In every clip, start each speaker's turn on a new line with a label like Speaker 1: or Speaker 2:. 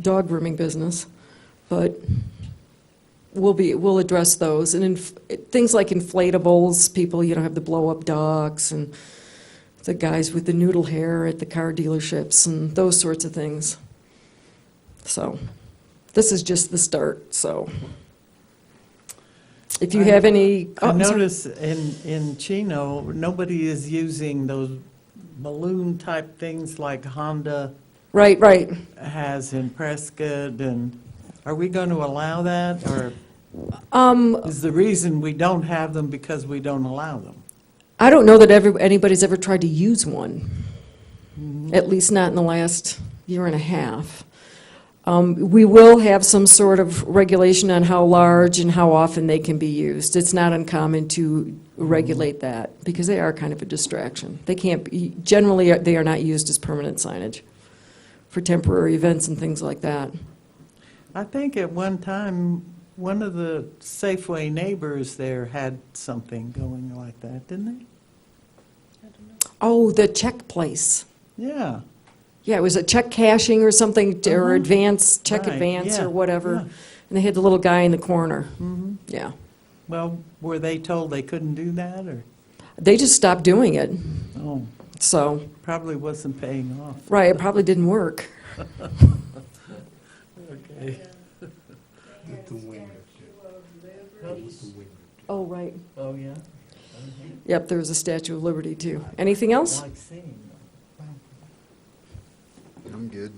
Speaker 1: dog grooming business, but we'll be, we'll address those. And inf- things like inflatables, people, you know, have the blow-up dogs and the guys with the noodle hair at the car dealerships and those sorts of things. So, this is just the start, so. If you
Speaker 2: I-
Speaker 1: have any. oh,
Speaker 2: I
Speaker 1: I'm sorry.
Speaker 2: notice in, in Chino, nobody is using those balloon-type things like Honda
Speaker 1: Right, right.
Speaker 2: has in Prescott, and are we going to allow that, or
Speaker 1: Um,
Speaker 2: is the reason we don't have them because we don't allow them?
Speaker 1: I don't know that ever, anybody's ever tried to use one, at least not in the last year and a half. Um, We will have some sort of regulation on how large and how often they can be used. It's not uncommon to regulate that, because they are kind of a distraction. They can't, be- generally, uh, they are not used as permanent signage for temporary events and things like that.
Speaker 2: I think at one time, one of the Safeway neighbors there had something going like that, didn't
Speaker 1: Oh, the check place.
Speaker 2: they? Yeah.
Speaker 1: Yeah, it was a check cashing or something, t- or
Speaker 2: Mhm.
Speaker 1: advance, check
Speaker 2: Right,
Speaker 1: advance
Speaker 2: yeah,
Speaker 1: or whatever.
Speaker 2: yeah.
Speaker 1: And they had the little guy in the corner.
Speaker 2: Mhm.
Speaker 1: Yeah.
Speaker 2: Well, were they told they couldn't do that, or,
Speaker 1: They just stopped doing it.
Speaker 2: oh,
Speaker 1: So,
Speaker 2: probably wasn't paying off.
Speaker 1: right, it probably didn't work.
Speaker 2: Okay.
Speaker 1: Oh, right.
Speaker 2: Oh, yeah?
Speaker 1: Yep, there was a Statue of Liberty, too. Anything else?
Speaker 2: Like seeing them.
Speaker 3: I'm good.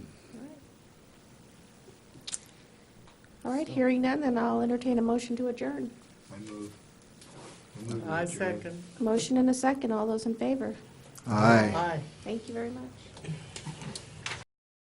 Speaker 4: All right, hearing none, then I'll entertain a motion to adjourn.
Speaker 3: I move. move
Speaker 2: I
Speaker 3: adjourned.
Speaker 2: second.
Speaker 4: Motion and a second, all those in favor.
Speaker 3: Aye.
Speaker 2: Aye.
Speaker 4: Thank you very much.